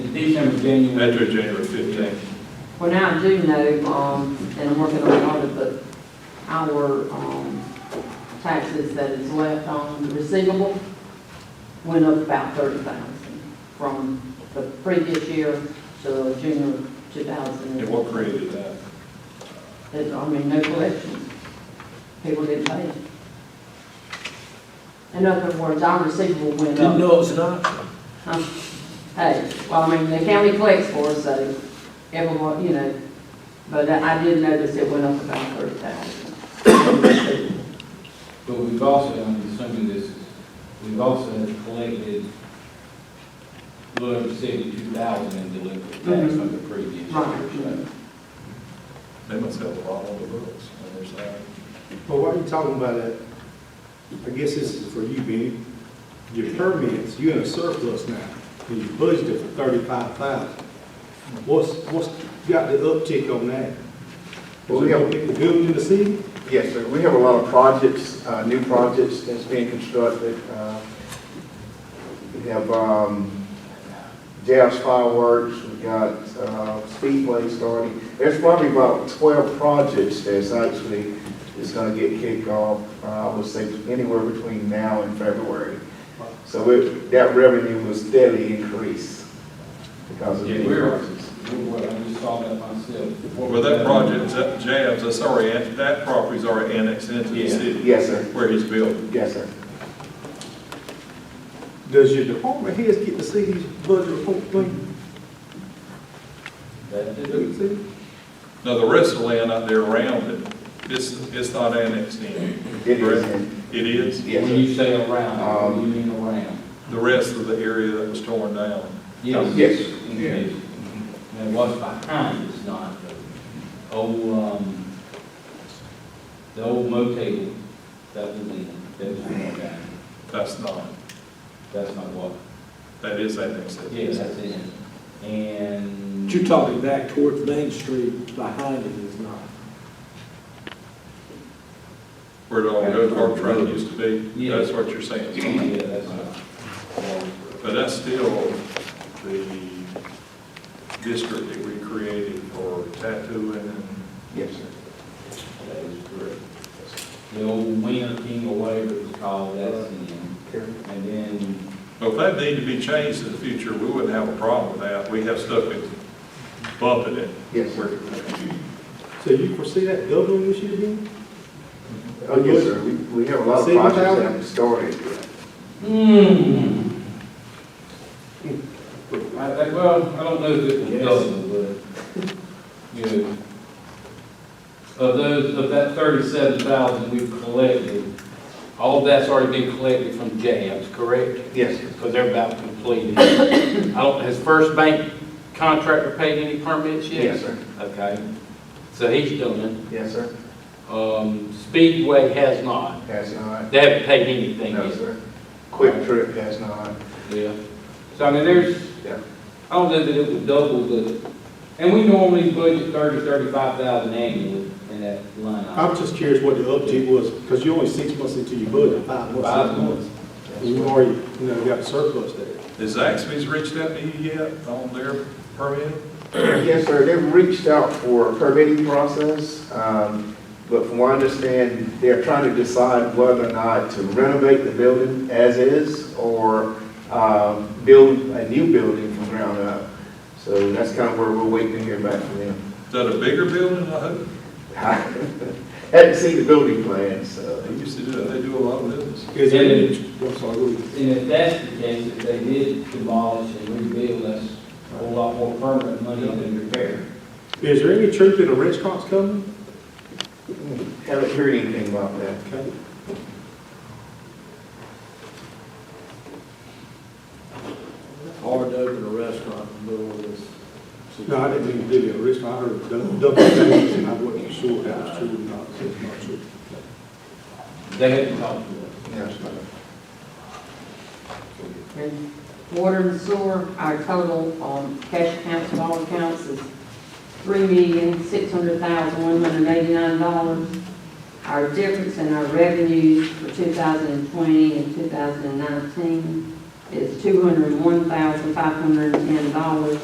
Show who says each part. Speaker 1: December, January.
Speaker 2: After January fifteenth.
Speaker 3: Well, now I do know, um, and I'm working on the audit, but our, um, taxes that is left on the receivable went up about thirty thousand from the previous year to June of two thousand.
Speaker 2: And what created that?
Speaker 3: There's, I mean, no collections. People didn't pay it. In other words, our receivable went
Speaker 4: Didn't
Speaker 3: up.
Speaker 4: know it was an option.
Speaker 3: Huh? Um, Hey, well, I mean, the county collects for us, so everyone, you know, but I I did notice it went up about thirty thousand.
Speaker 1: But we've also, I'm assuming this is, we've also collected a little over seventy-two thousand in delinquent tax from the previous year.
Speaker 3: Right.
Speaker 2: They must have a lot on the books on their side.
Speaker 5: Well, while you're talking about that, I guess this is for you, Benny. Your permits, you're in a surplus now, and you budgeted for thirty-five thousand. What's, what's got the uptick on that?
Speaker 6: Well, we have-
Speaker 5: Is it Good in the city?
Speaker 6: Yes, sir. We have a lot of projects, uh, new projects that's being constructed. Uh, We have um, Jazz Fireworks, we got uh, Speedway starting. There's probably about 12 projects that's actually, is going to get kicked off, uh, I would say, anywhere between now and February. So it- that revenue will steadily increase because of
Speaker 1: Yeah,
Speaker 6: new
Speaker 1: we're-
Speaker 6: projects.
Speaker 1: Well, I just saw that myself.
Speaker 2: Well, that project, that jabs, that's already, an- that property's already annexed into the
Speaker 1: Yeah.
Speaker 2: city
Speaker 6: Yes, sir.
Speaker 2: where he's building.
Speaker 6: Yes, sir.
Speaker 5: Does your department heads get to see these budget report thing?
Speaker 1: That did
Speaker 5: Do
Speaker 1: it.
Speaker 5: you see?
Speaker 2: Now, the rest of the land out there around it, it's, it's not annexed in.
Speaker 6: It is.
Speaker 2: Correct. It is,
Speaker 6: Yes,
Speaker 1: When
Speaker 6: sir.
Speaker 1: you say around,
Speaker 6: Um,
Speaker 1: you mean around.
Speaker 2: the rest of the area that was torn down.
Speaker 1: Yes.
Speaker 6: Yes.
Speaker 1: Yes. And what's behind is not the old, um, the old motel that was in, that was in that.
Speaker 2: That's not,
Speaker 1: That's not what,
Speaker 2: that is annexed. in.
Speaker 1: yeah, that's in. And.
Speaker 4: But you're talking back towards Main Street, behind it is not.
Speaker 2: Where the old go-kart track used to be,
Speaker 1: Yeah.
Speaker 2: that's what you're saying.
Speaker 1: Yeah, that's not.
Speaker 2: But that's still the district that we created for tattooing and
Speaker 6: Yes, sir.
Speaker 1: That is correct. The old Winter King or whatever it was called, that's in. And then,
Speaker 2: Well, if that need to be changed in the future, we wouldn't have a problem with that. We have stuff that's bumping it.
Speaker 6: Yes, sir.
Speaker 5: So you foresee that doubling this year, Benny?
Speaker 6: Oh, yes, sir, we, we have a lot of
Speaker 5: Saving
Speaker 6: projects that
Speaker 5: power?
Speaker 6: have started.
Speaker 1: hmm. I, I, well, I don't know if it was double, but, you know, of those, of that thirty-seven thousand we've collected, all of that's already been collected from jabs, correct?
Speaker 6: Yes, sir.
Speaker 1: Because they're about completed. I don't, has First Bank contractor paid any permits yet?
Speaker 6: Yes, sir.
Speaker 1: Okay, so he's done
Speaker 6: Yes, sir.
Speaker 1: it. Um, Speedway has not.
Speaker 6: Has not.
Speaker 1: They haven't paid anything
Speaker 6: No,
Speaker 1: yet.
Speaker 6: sir. Quick trip has not.
Speaker 1: Yeah. So I mean, there's,
Speaker 6: Yeah.
Speaker 1: I don't know that it would double the, and we normally budget thirty, thirty-five thousand annually in that line. item.
Speaker 5: I'm just curious what the uptick was, because you're only six months into your budget, five months.
Speaker 1: Five
Speaker 5: six
Speaker 1: months.
Speaker 5: And You've already, you know, got surplus there.
Speaker 2: Has Zaxby's reached out to you yet on their permit?
Speaker 6: Yes, sir, they've reached out for a permitting process, um, but from what I understand, they're trying to decide whether or not to renovate the building as is or, um, build a new building from ground up. So that's kind of where we're waiting to hear back from them.
Speaker 2: Is that a bigger building, I hope?
Speaker 6: Hadn't seen the building plan, so.
Speaker 2: They used to do that. They do a lot of business.
Speaker 5: Is it, I'm sorry, go ahead.
Speaker 7: And if that's the case, if they did demolish and rebuild, that's a whole lot more permanent money than repair.
Speaker 5: Is there any truth in the restaurants coming?
Speaker 6: Haven't heard anything about that.
Speaker 5: Okay.
Speaker 4: Hard to open a restaurant in the middle of this.
Speaker 5: No, I didn't mean to do that, restaurant, I heard double, double things, and I wasn't sure if that was true or not, so it's not true.
Speaker 7: They hadn't talked to us.
Speaker 6: Yes, sir.
Speaker 3: And water and sewer, our total on cash accounts of all accounts is three million, six hundred thousand, one hundred eighty-nine dollars. Our difference in our revenues for two thousand and twenty and two thousand and nineteen is two hundred and one thousand, five hundred and ten dollars.